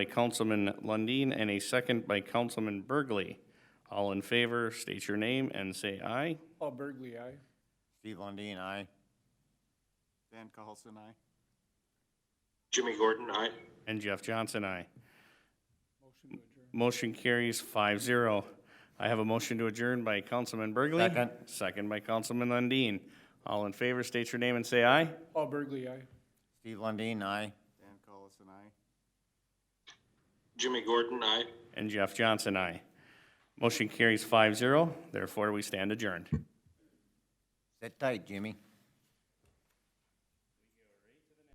by Councilman Lundin and a second by Councilman Burgley. All in favor, state your name and say aye. Paul Burgley, aye. Steve Lundin, aye. Dan Carlson, aye. Jimmy Gordon, aye. And Jeff Johnson, aye. Motion to adjourn. Motion carries five zero. I have a motion to adjourn by Councilman Burgley. Second. Second by Councilman Lundin. All in favor, state your name and say aye. Paul Burgley, aye. Steve Lundin, aye. Dan Carlson, aye. Jimmy Gordon, aye. And Jeff Johnson, aye. Motion carries five zero. Therefore, we stand adjourned. Sit tight, Jimmy.